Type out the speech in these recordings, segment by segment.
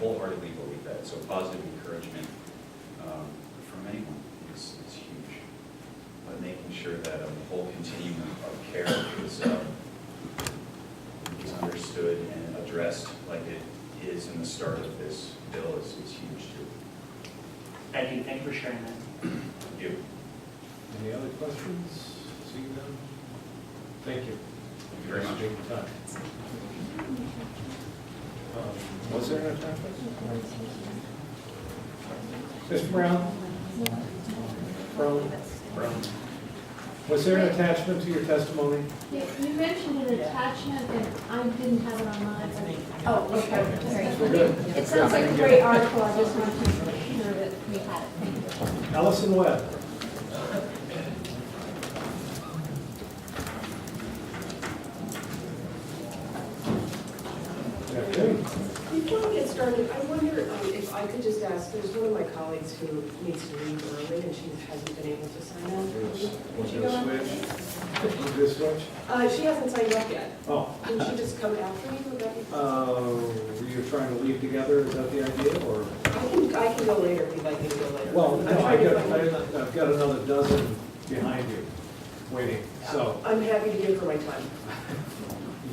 wholeheartedly believe that, so positive encouragement um, from anyone is, is huge. But making sure that um, the whole continuum of care is, um, is understood and addressed like it is in the start of this bill is, is huge too. Thank you, thank you for sharing that. Thank you. Any other questions? Seeing none? Thank you. Thank you very Thanks much. for taking the time. Um, Was there a time? Mr. Brown? Brown? Brown. Was there an attachment to your testimony? Yeah, You mentioned an attachment, and I didn't have it on mine. but- Oh, okay, We're good. It sounds like a great article, I just wanted to make sure that we had it. Allison Webb. Okay. Before we get started, I wonder um, if I could just ask, there's one of my colleagues who needs to leave early and she hasn't been able to sign Yes. up. Would Was she there go a after switch? me? Was there a switch? Uh, she hasn't signed up yet. Oh, Can she just come after me? Would that be? uh, were you trying to leave together, is that the idea, or? I can, I can go later if you'd like me to go later. Well, I'm no, I trying to got, find- I- I've got another dozen behind you, waiting, so I'm happy to give her my time.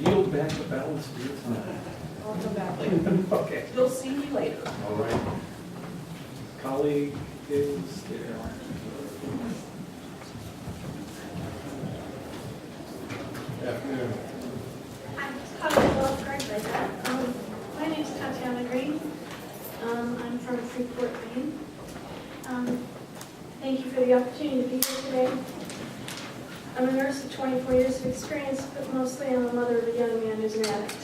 yield back the balance of your time. I'll come back later. Okay. You'll see me later. All right. Colleague is there. Afternoon. I'm comfortable with Greg like that. Um, My name's Tatiana Green. Um, I'm from Freeport, Maine. Um, Thank you for the opportunity to be here today. I'm a nurse with 24 years of experience, but mostly I'm a mother of a young man who's an addict.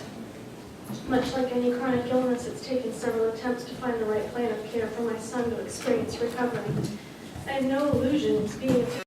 Much like any chronic illness, it's taken several attempts to find the right plan of care for my son to experience recovery. I have no illusions being a